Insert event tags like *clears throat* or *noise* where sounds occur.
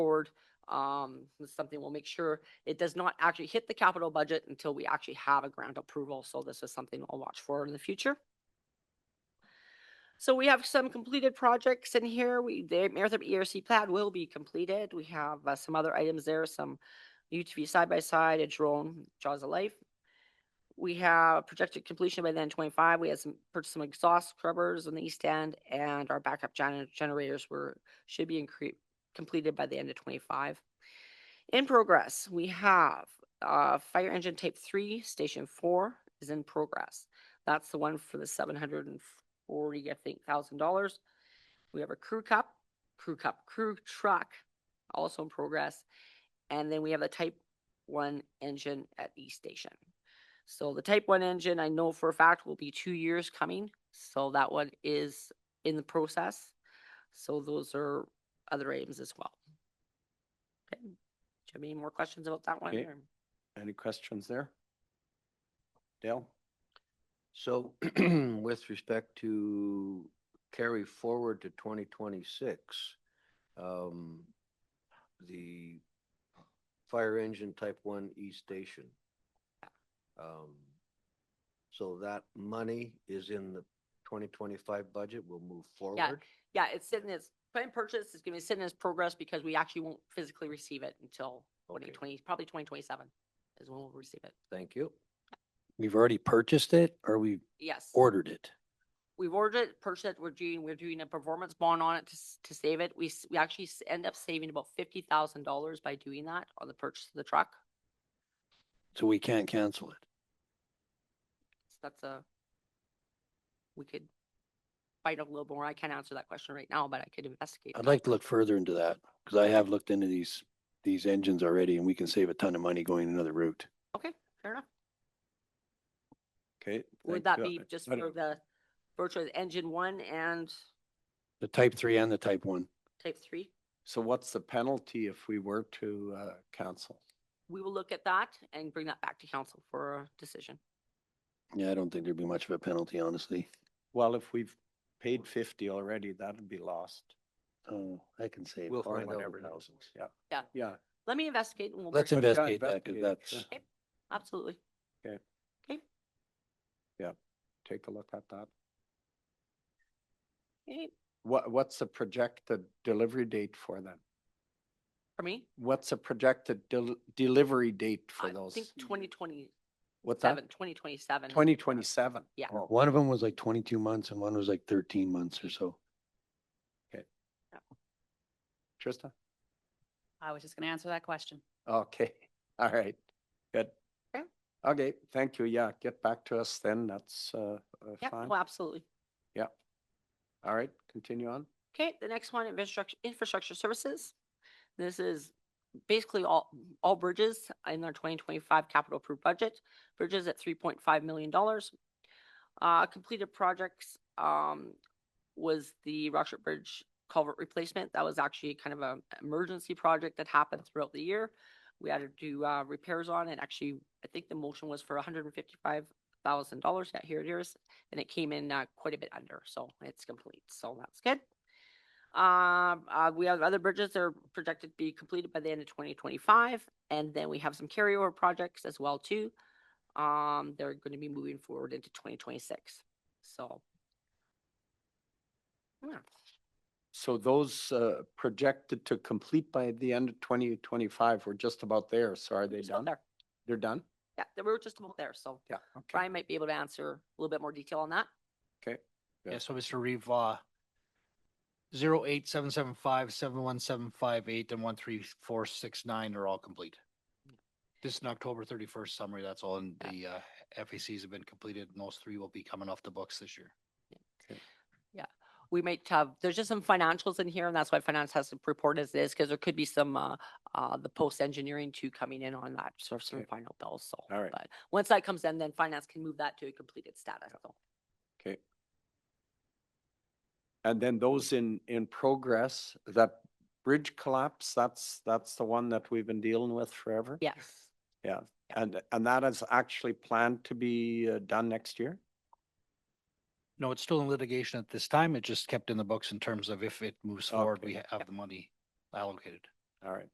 forward. Um, it's something we'll make sure it does not actually hit the capital budget until we actually have a grant approval. So this is something I'll watch for in the future. So we have some completed projects in here. We, the Marathon E ERC plat will be completed. We have uh, some other items there, some UTV side-by-side, a drone, Jaws of Life. We have projected completion by then twenty-five. We had some, purchased some exhaust scrubbers on the east end and our backup gen- generators were, should be incre- completed by the end of twenty-five. In progress, we have, uh, fire engine tape three, station four is in progress. That's the one for the seven hundred and forty, I think, thousand dollars. We have a crew cup, crew cup, crew truck, also in progress. And then we have a type one engine at East Station. So the type one engine, I know for a fact will be two years coming, so that one is in the process. So those are other items as well. Okay. Do you have any more questions about that one? Okay. or- Any questions there? Dale? So *clears throat* with respect to carry forward to twenty twenty-six, um, the fire engine type one E station. Um, so that money is in the twenty twenty-five budget, we'll move forward. Yeah, it's sitting as, plan purchase is gonna be sitting as progress because we actually won't physically receive it until twenty Okay. twenty, probably twenty twenty-seven is when we'll receive it. Thank you. We've already purchased it or we Yes. ordered it? We've ordered it, purchased it, we're doing, we're doing a performance bond on it to, s- to save it. We, s- we actually s- end up saving about fifty thousand dollars by doing that on the purchase of the truck. So we can't cancel it. So That's a, we could find out a little more. I can't answer that question right now, but I could investigate. I'd that. like to look further into that because I have looked into these, these engines already and we can save a ton of money going another route. Okay, fair enough. Okay. Would thank that you. be just I for don't- the virtual engine one and The type three and the type one. type three? So what's the penalty if we were to uh, cancel? we will look at that and bring that back to council for a decision. Yeah, I don't think there'd be much of a penalty, honestly. Well, if we've paid fifty already, that'd be lost. Oh, I can save. We'll Or find out. whatever thousands, yeah. Yeah. Yeah, Let me investigate and we'll. Let's bring it back. invest- investigate that because investigate, that's, sure. Absolutely. take a look at that. Okay, What, what's the projected delivery date for them? For me, What's the projected del- delivery date for I those? think twenty twenty-seven, What's that? twenty twenty-seven. Twenty twenty-seven? Yeah. one of them was like twenty-two months and one was like thirteen months or so. Trista? I was just gonna answer that question. Okay, *laughs* all right, good. Okay. Okay, thank you. Yeah, get back to us then. That's uh, uh, Yeah, fine. oh, absolutely. All right, continue on. Okay, the next one, infrastructure, infrastructure services. This is basically all, all bridges in their twenty twenty-five capital approved budget, bridges at three point five million dollars. Uh, completed projects, um, was the Rockshire Bridge culvert replacement. That was actually kind of an emergency project that happened throughout the year. We had to do, uh, repairs on it. Actually, I think the motion was for hundred and fifty-five thousand dollars. Yeah, here it is. And it came in, uh, quite a bit under, so it's complete. So that's good. Um, uh, we have other bridges that are projected to be completed by the end of twenty twenty-five, and then we have some carryover projects as well too. Um, they're gonna be moving forward into twenty twenty-six, so. Yeah, So those uh, projected to complete by the end of twenty twenty-five, we're just about there. So are they just about done? there. They're done? Yeah, they we're just about there, so Yeah, okay. Brian might be able to answer a little bit more detail on that. Yeah. Yeah, so Mr. Reeve, uh, zero eight seven seven five, seven one seven five eight and one three four six nine are all complete. This is an October thirty-first summary, that's all, and the, uh, FACs have been completed, and those three will be coming off the books this year. we might have, there's just some financials in here, and that's why finance has to report as this, because there could be some, uh, uh, the post-engineering too coming in on that, sort of some Okay. final bills, so. All right. But once that comes in, then finance can move that to a completed status, so. Okay. And then those in, in progress, that bridge collapse, that's, that's the one that we've been dealing with forever? Yes, And, and that is actually planned to be uh, done next year? No, it's still in litigation at this time, it just kept in the books in terms of if it moves forward, we Okay. have the money allocated. All right.